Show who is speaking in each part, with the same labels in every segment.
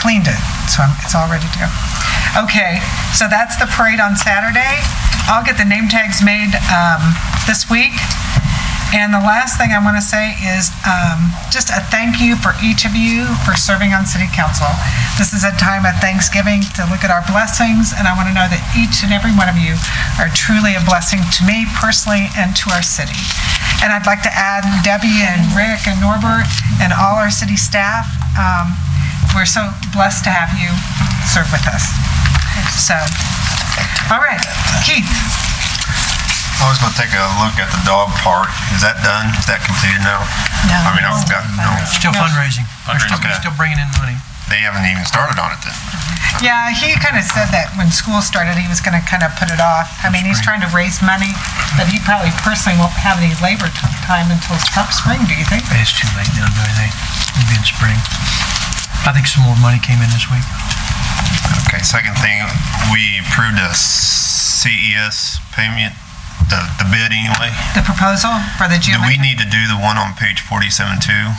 Speaker 1: cleaned it, so I'm- it's all ready to go. Okay, so that's the parade on Saturday. I'll get the name tags made um, this week. And the last thing I want to say is um, just a thank you for each of you for serving on city council. This is a time of Thanksgiving to look at our blessings, and I want to know that each and every one of you are truly a blessing to me personally and to our city. And I'd like to add Debbie and Rick and Norbert and all our city staff. Um, We're so blessed to have you serve with us. So, all right, Keith,
Speaker 2: I was gonna take a look at the dog park. Is that done? Is that completed now?
Speaker 3: No.
Speaker 2: I mean, I've got, no,
Speaker 4: Still fundraising. We're still,
Speaker 2: Fundraising.
Speaker 4: we're still bringing in money.
Speaker 2: they haven't even started on it then.
Speaker 1: Yeah, he kind of said that when school started, he was going to kind of put it off. I mean, he's trying to raise money, but he probably personally won't have any labor t- time until some spring, do you think?
Speaker 4: It's too late now, do anything. Maybe in spring. I think some more money came in this week.
Speaker 2: Okay, second thing, we approved a CES payment, the, the bid anyway.
Speaker 1: The proposal for the
Speaker 2: Do
Speaker 1: gym.
Speaker 2: we need to do the one on page forty-seven two?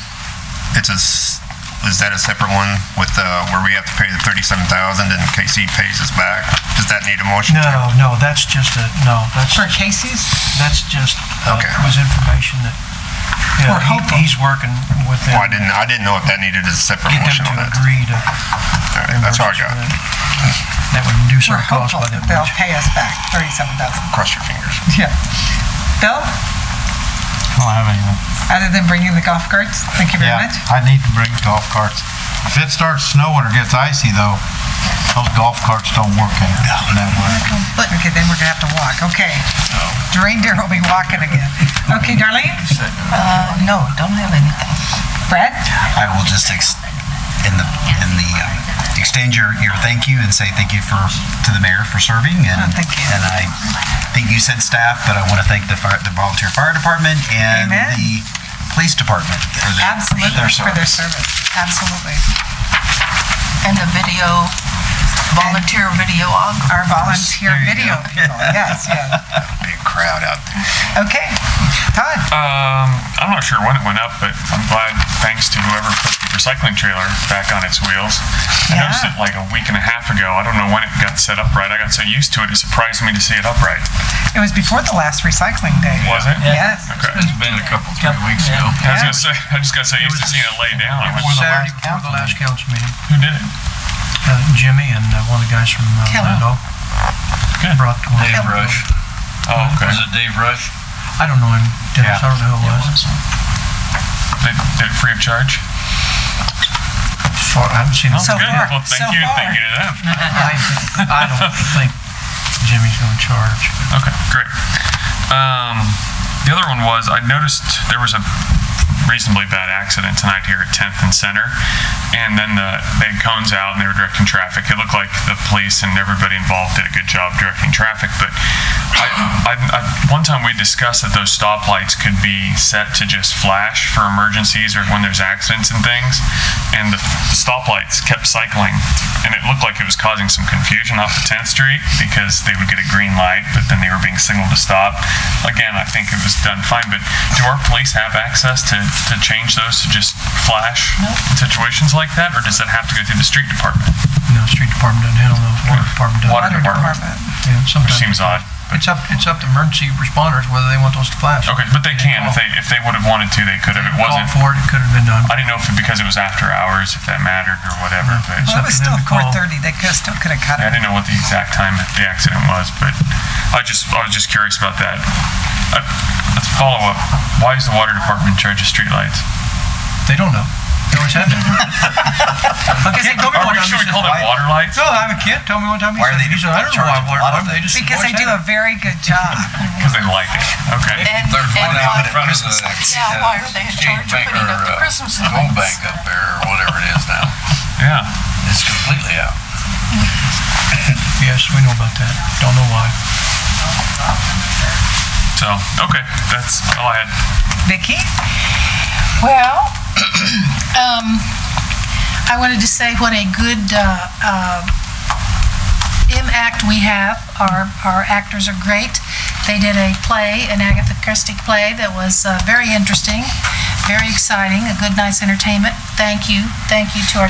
Speaker 2: It's a, s- is that a separate one with, uh, where we have to pay the thirty-seven thousand and KC pays us back? Does that need a motion?
Speaker 4: No, no, that's just a, no, that's,
Speaker 1: For Casey's?
Speaker 4: that's just, uh,
Speaker 2: Okay.
Speaker 4: was information that, you know,
Speaker 1: We're hopeful.
Speaker 4: he- he's working with them.
Speaker 2: Well, I didn't, I didn't know if that needed a separate
Speaker 4: Get
Speaker 2: motion
Speaker 4: them
Speaker 2: on
Speaker 4: to
Speaker 2: that.
Speaker 4: agree to.
Speaker 2: All right, That's all I got.
Speaker 4: That would reduce
Speaker 1: We're
Speaker 4: our cost
Speaker 1: hopeful
Speaker 4: by
Speaker 1: that
Speaker 4: that
Speaker 1: they'll
Speaker 4: much.
Speaker 1: pay us back thirty-seven thousand.
Speaker 2: Cross your fingers.
Speaker 1: Yeah. Bill,
Speaker 5: I don't have anything.
Speaker 1: other than bringing the golf carts, thank you very
Speaker 5: Yeah,
Speaker 1: much.
Speaker 5: I need to bring golf carts. If it starts snowing or gets icy though, those golf carts don't work in in that way.
Speaker 1: Okay, then we're gonna have to walk, okay. Reindeer will be walking again. Okay, Darlene?
Speaker 3: Uh, No, don't have anything.
Speaker 1: Brad?
Speaker 6: I will just ex- in the in the um, exchange your, your thank you and say thank you for to the mayor for serving
Speaker 1: Oh,
Speaker 6: and
Speaker 1: thank you.
Speaker 6: and I think you said staff, but I want to thank the fire, the volunteer fire department and
Speaker 1: Amen.
Speaker 6: the police department for their,
Speaker 1: Absolutely,
Speaker 6: their
Speaker 1: for their
Speaker 6: service.
Speaker 1: service, absolutely.
Speaker 3: And the video, volunteer videographer.
Speaker 1: Our volunteer video people, yes, yes.
Speaker 2: Big crowd out there.
Speaker 1: Okay, Todd,
Speaker 7: Um, I'm not sure when it went up, but I'm glad, thanks to whoever put the recycling trailer back on its wheels. I
Speaker 1: Yeah.
Speaker 7: noticed it like a week and a half ago. I don't know when it got set up right. I got so used to it, it surprised me to see it upright.
Speaker 1: it was before the last recycling day.
Speaker 7: Was it?
Speaker 1: Yes,
Speaker 7: Okay.
Speaker 5: Been a couple, three weeks ago.
Speaker 7: I was gonna say, I just got so used to seeing it lay down. I went,
Speaker 4: Before the
Speaker 6: Saturday
Speaker 4: last, before the last council meeting,
Speaker 7: Who did it?
Speaker 4: uh, Jimmy and uh, one of the guys from uh,
Speaker 1: Kelly.
Speaker 4: Randolph
Speaker 7: Good.
Speaker 4: brought one.
Speaker 5: Dave Rush.
Speaker 7: Oh, okay.
Speaker 5: Was it Dave Rush?
Speaker 4: I don't know him, Dennis, I don't know who it was.
Speaker 7: They did it free of charge?
Speaker 4: Far- I haven't seen him.
Speaker 1: So
Speaker 7: Good.
Speaker 1: far,
Speaker 7: Well,
Speaker 1: so
Speaker 7: thank you,
Speaker 1: far.
Speaker 7: thank you to them.
Speaker 4: I, I don't think Jimmy's going to charge.
Speaker 7: Okay, great. Um, the other one was I noticed there was a reasonably bad accident tonight here at 10th and Center, and then the, they had cones out and they were directing traffic. It looked like the police and everybody involved did a good job directing traffic, but I, I, I, one time we discussed that those stoplights could be set to just flash for emergencies or when there's accidents and things, and the, the stoplights kept cycling, and it looked like it was causing some confusion off of 10th Street because they would get a green light, but then they were being signaled to stop. Again, I think it was done fine, but do our police have access to, to change those to just flash in situations like that, or does that have to go through the street department?
Speaker 4: You know, street department doesn't handle those, water department doesn't.
Speaker 7: Water department,
Speaker 4: Yeah,
Speaker 7: which
Speaker 4: sometimes.
Speaker 7: seems odd.
Speaker 4: It's up, it's up to emergency responders whether they want those to flash.
Speaker 7: Okay, but they can, if they, if they would have wanted to, they could have. It
Speaker 4: Call
Speaker 7: wasn't,
Speaker 4: for it, it could have been done.
Speaker 7: I didn't know if it, because it was after hours, if that mattered or whatever, but
Speaker 1: Well, it
Speaker 4: up
Speaker 1: was
Speaker 4: to
Speaker 1: still
Speaker 4: them to
Speaker 1: four
Speaker 4: call.
Speaker 1: thirty, they could, still could have cut
Speaker 7: yeah, I
Speaker 1: it.
Speaker 7: didn't know what the exact time that the accident was, but I just, I was just curious about that. Uh, Let's follow up. Why is the water department in charge of streetlights?
Speaker 4: They don't know. They always have been. Okay, tell me
Speaker 7: Are
Speaker 4: one
Speaker 7: we,
Speaker 4: time
Speaker 7: should
Speaker 4: he
Speaker 7: we call
Speaker 4: said-
Speaker 7: them water lights?
Speaker 4: No, I'm a kid, tell me one time he
Speaker 6: Why are
Speaker 4: said,
Speaker 6: they
Speaker 4: he said, I don't know why
Speaker 6: charging
Speaker 4: water
Speaker 6: a lot
Speaker 4: department,
Speaker 6: of
Speaker 4: they just.
Speaker 1: Because they
Speaker 4: always
Speaker 1: do
Speaker 4: have
Speaker 1: a very good job.
Speaker 7: Because they like it. Okay.
Speaker 3: And-
Speaker 8: They're
Speaker 3: and
Speaker 8: going
Speaker 3: why-
Speaker 8: out in front of the. uh,
Speaker 3: Yeah, why are they in charge of putting up the Christmas lights?
Speaker 8: Home bank up there, or whatever it is now.
Speaker 7: Yeah.
Speaker 8: It's completely out.
Speaker 4: it. Yes, we know about that, don't know why.
Speaker 7: So, okay, that's all I had.
Speaker 1: Vicky,
Speaker 3: Well, um, I wanted to say what a good, uh, um, impact we have. Our, our actors are great. They did a play, an Agatha Christie play that was, uh, very interesting, very exciting, a good night's entertainment. Thank you, thank you to our